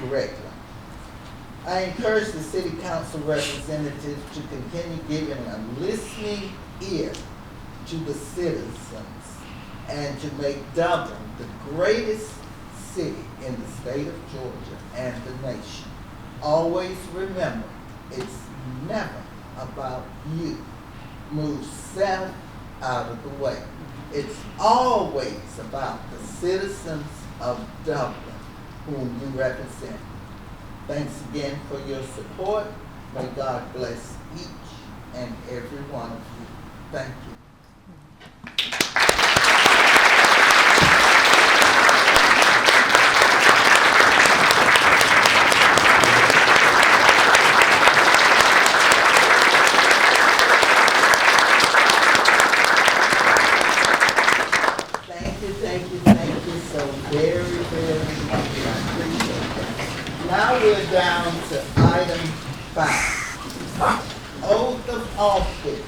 director. I encourage the city council representatives to continue giving a listening ear to the citizens and to make Dublin the greatest city in the state of Georgia and the nation. Always remember, it's never about you. Move south out of the way. It's always about the citizens of Dublin whom you represent. Thanks again for your support. May God bless each and every one of you. Thank you. Thank you, thank you, thank you so very, very much. I appreciate that. Now we're down to item five. Oath of office.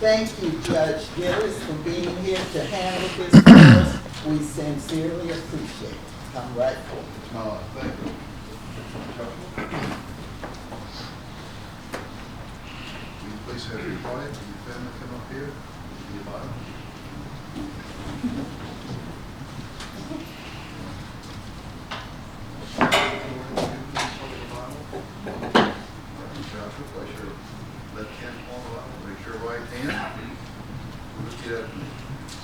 Thank you, Judge Gillis, for being here to handle this for us. We sincerely appreciate it. Come right forward. Uh, thank you. Will you please have your quiet and your family come up here? Be a Bible. Joshua, place your left hand on the Bible, raise your right hand. Repeat after me.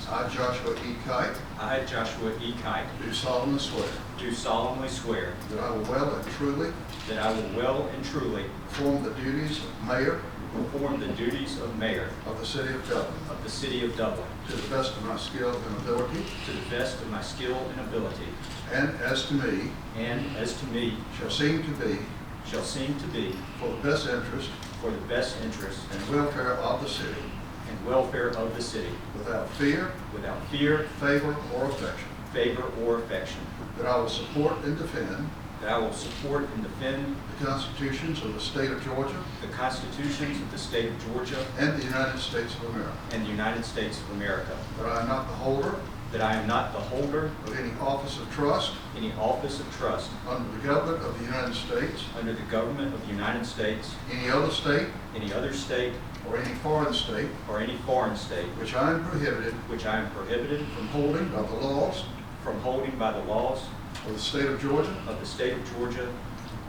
I, Joshua E. Kite, I, Joshua E. Kite, do solemnly swear do solemnly swear that I will well and truly that I will well and truly Perform the duties of mayor perform the duties of mayor of the city of Dublin of the city of Dublin to the best of my skill and ability, to the best of my skill and ability, and as to me and as to me shall seem to be shall seem to be for the best interest for the best interest and welfare of the city, and welfare of the city, without fear, without fear, favor, or affection, favor, or affection, that I will support and defend that I will support and defend the constitutions of the state of Georgia the constitutions of the state of Georgia and the United States of America, and the United States of America, that I am not the holder that I am not the holder of any office of trust any office of trust under the government of the United States, under the government of the United States, any other state, any other state, or any foreign state, or any foreign state which I am prohibited which I am prohibited from holding by the laws from holding by the laws of the state of Georgia, of the state of Georgia,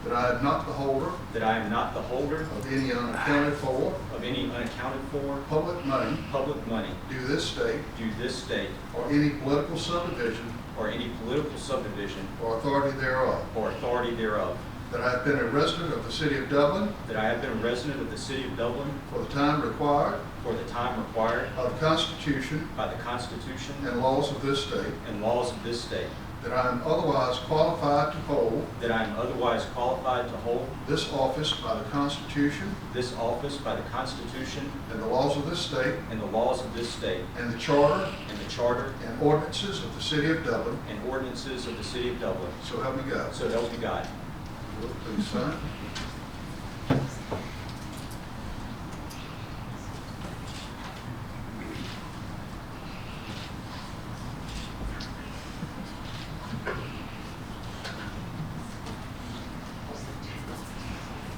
that I am not the holder that I am not the holder of any unaccounted for of any unaccounted for public money public money due this state due this state or any political subdivision or any political subdivision or authority thereof, or authority thereof, that I have been a resident of the city of Dublin that I have been a resident of the city of Dublin for the time required for the time required by the Constitution by the Constitution and laws of this state, and laws of this state, that I am otherwise qualified to hold that I am otherwise qualified to hold this office by the Constitution this office by the Constitution and the laws of this state and the laws of this state, and the charter and the charter and ordinances of the city of Dublin, and ordinances of the city of Dublin. so help me God. So help me God. Will you Please sign.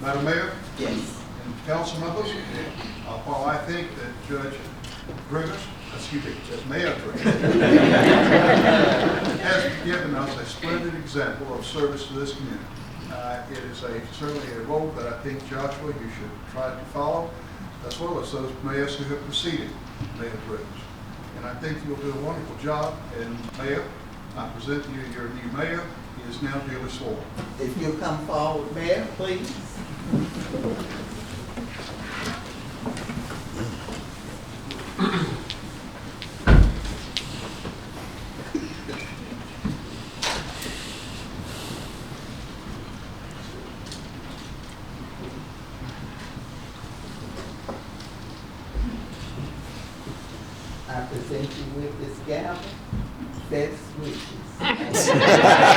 Madam Mayor Yes. and council members, uh, while I think that Judge Grigas, excuse me, Judge Mayor Grigas, has given us a splendid example of service to this community. Uh, It is a, certainly a role that I think, Joshua, you should try to follow, as well as those mayors who have preceded Mayor Grigas. And I think you'll do a wonderful job, and Mayor, I present to you your new mayor, he is now duly sworn. If you'll come forward, Mayor, please. I present you with this gavel, best wishes.